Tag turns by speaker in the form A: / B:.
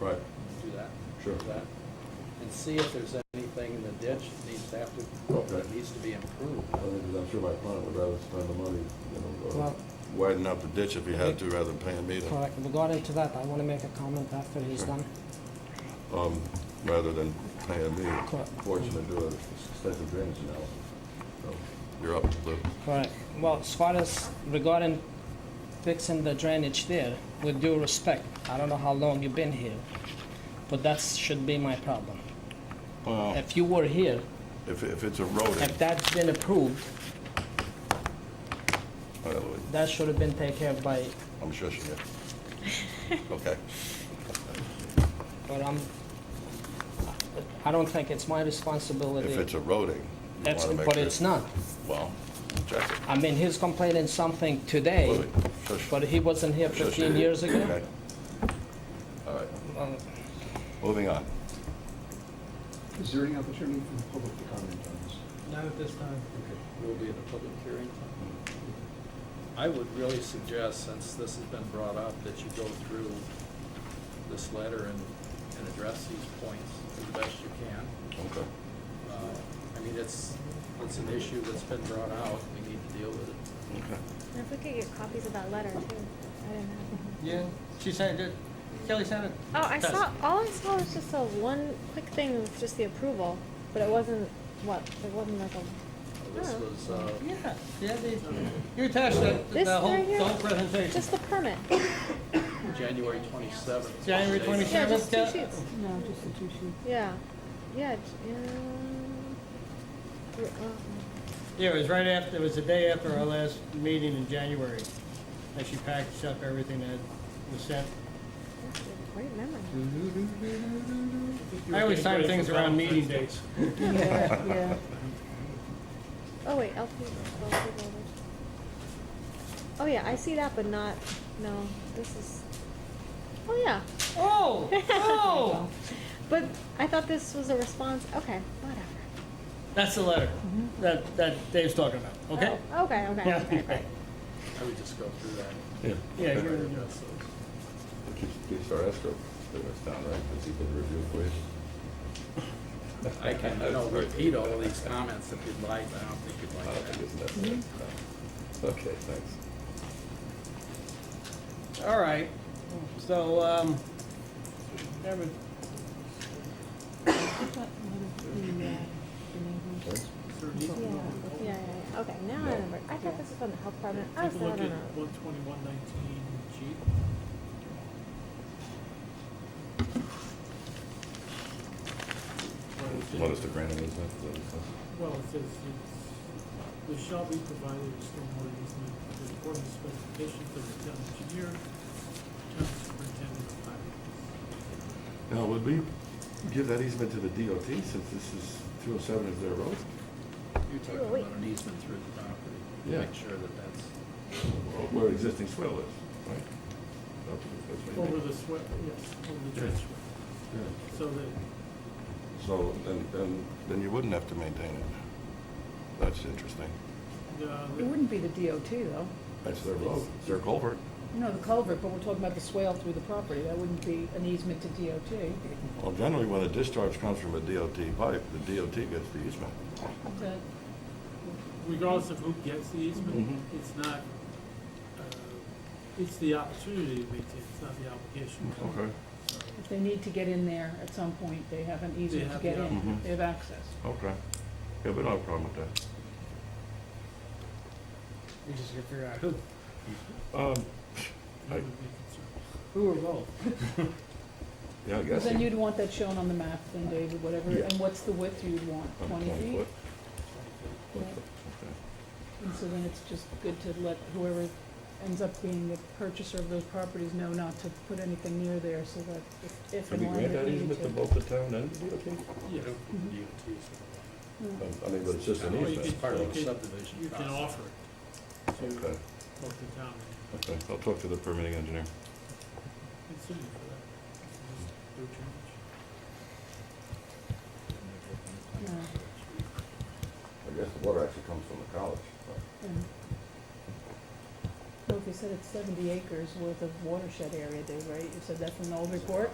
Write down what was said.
A: Right,
B: do that.
A: Sure.
B: do that, And see if there's anything in the ditch that needs to have to, that
A: Okay.
B: needs to be improved.
A: I think, I'm sure my client would rather spend the money, you know, uh,
C: Well-
A: widen up the ditch if he had to, rather than paying me to,
C: Correct. Regarding to that, I want to make a comment after he's done.
A: um, rather than paying me.
C: Correct.
A: Fortunately, do an extensive drainage analysis. So, You're up, Lou.
C: Correct. Well, as far as regarding fixing the drainage there, with due respect, I don't know how long you've been here, but that should be my problem. If you were here,
A: If, if it's eroding,
C: if that's been approved,
A: all right, Louis,
C: that should have been taken care of by,
A: I'm shushing you. Okay.
C: but I'm, I don't think it's my responsibility.
A: If it's eroding, you
C: That's-
A: wanna make
C: But
A: sure-
C: it's not.
A: Well, check it.
C: I mean, he's complaining something today,
A: Louis, shush.
C: but he wasn't here
A: Shush.
C: 15 years ago.
A: Okay. All right,
C: Um,
A: moving on.
D: Is there any opportunity for the public to comment on this?
B: Not at this time. Will be at a public hearing.
A: Mm-hmm.
B: I would really suggest, since this has been brought up, that you go through this letter and, and address these points as best you can.
A: Okay.
B: Uh, I mean, it's, it's an issue that's been brought out, we need to deal with it.
A: Okay.
E: And if we could get copies of that letter too, I didn't have.
F: Yeah, she sent it. Kelly sent it.
E: Oh, I
F: Test.
E: saw, all I saw was just a one quick thing with just the approval, but it wasn't, what, it wasn't like a,
B: Uh, This
E: Oh.
B: was, uh,
F: Yeah, yeah, they, you attached it,
E: This
F: the whole,
E: right here?
F: the whole presentation.
E: just the permit.
B: January twenty-seventh.
F: January
E: Yeah,
F: 27th.
E: just two
F: Yeah.
E: sheets.
G: No, just the two sheets.
E: Yeah, yeah, j- um, r- uh,
F: Yeah, it was right after, it was the day after our last meeting in January, that she packaged up everything that was sent.
E: that's a great memory.
F: I always time things around meeting dates.
G: Yeah, yeah.
E: Oh, wait, LP, LP voters. Oh, yeah, I see that, but not, no, this is, oh, yeah,
F: Oh, oh,
E: but I thought this was a response, okay, whatever.
F: that's the letter
G: Mm-hmm.
F: that, that Dave's talking about, okay?
E: Oh, Okay, okay,
F: Yeah,
E: okay.
F: okay.
B: I would just go through that.
A: Yeah.
F: Yeah,
A: Okay.
F: you're-
B: Address those.
A: Keeps, keeps our escrow clearance down, right, because he can review for you.
B: I can, you know, repeat all these comments if you'd like, I don't think
A: I
B: you'd
A: don't
B: like that.
A: think it's necessary. No. Okay, thanks.
F: All right, so, um, that would-
G: I thought one of the, uh, the neighbors-
A: Thanks.
E: Yeah, yeah, yeah, yeah. okay, now I remember, I thought this was from the health department, I was
H: Take a
E: not
H: look
E: on
H: at
E: a,
H: one twenty-one nineteen G.
A: What is the grant on this, then? Is that what it says?
H: Well, it says, it's- there shall be provided a stormwater easement with according to specifications of the town engineer, town superintendent of highways.
A: Now, would we give that easement to the DOT since this is, 207 is their
B: You're
A: road?
E: Oh,
B: talking
E: wait.
B: about an easement through the property,
A: Yeah.
B: make sure that that's,
A: Where existing swell is, right? That's what you mean.
H: Over the swe, yes, over the trench,
A: Yeah.
H: so that,
A: So, then, then, then you wouldn't have to maintain it. That's interesting.
H: uh,
G: It wouldn't be the DOT, though.
A: That's their road, it's their culvert.
G: No, the culvert, but we're talking about the swale through the property. That wouldn't be an easement to DOT.
A: Well, generally, when a discharge comes from a DOT pipe, the DOT gets the easement.
G: That-
H: regardless of who gets the easement,
A: Mhm.
H: it's not, uh, it's the opportunity to maintain, it's not the obligation.
G: If they need to get in there at some point, they have an easement to
H: have
G: get
H: the
G: in.
A: option.
G: They have access.
A: Okay. Yeah, we don't have a problem with that.
F: we just gotta figure out who,
A: Um,
H: That would be a concern.
F: who or both.
A: yeah, I
G: Because
A: guess.
G: then
A: you-
G: you'd want that shown on the map, then David, whatever.
A: Yeah.
G: And what's the width you'd want?
A: Um,
G: Twenty feet?
A: foot.
G: Yeah.
A: Okay.
G: And so then it's just good to let whoever ends up being the purchaser of those properties know not to put anything near there so that if- if
A: Can we
G: and when
A: grant
G: they
A: that
G: need
A: easement to
G: to.
A: both the town and the DOT?
H: Yeah.
B: DOT's.
G: Mm.
A: Um, I mean, but it's just an
H: Or you
A: easement.
H: could-
B: Part of the
H: you could-
B: subdivision
H: You can
B: process.
H: offer it to
A: Okay,
H: both the town and
A: okay, I'll talk to the permitting engineer.
H: the city for that. Just do change.
G: Yeah.
A: I guess the water actually comes from the college.
G: Mm. Well, if you said it's seventy acres worth of watershed area, Dave, right? You said that from the old report?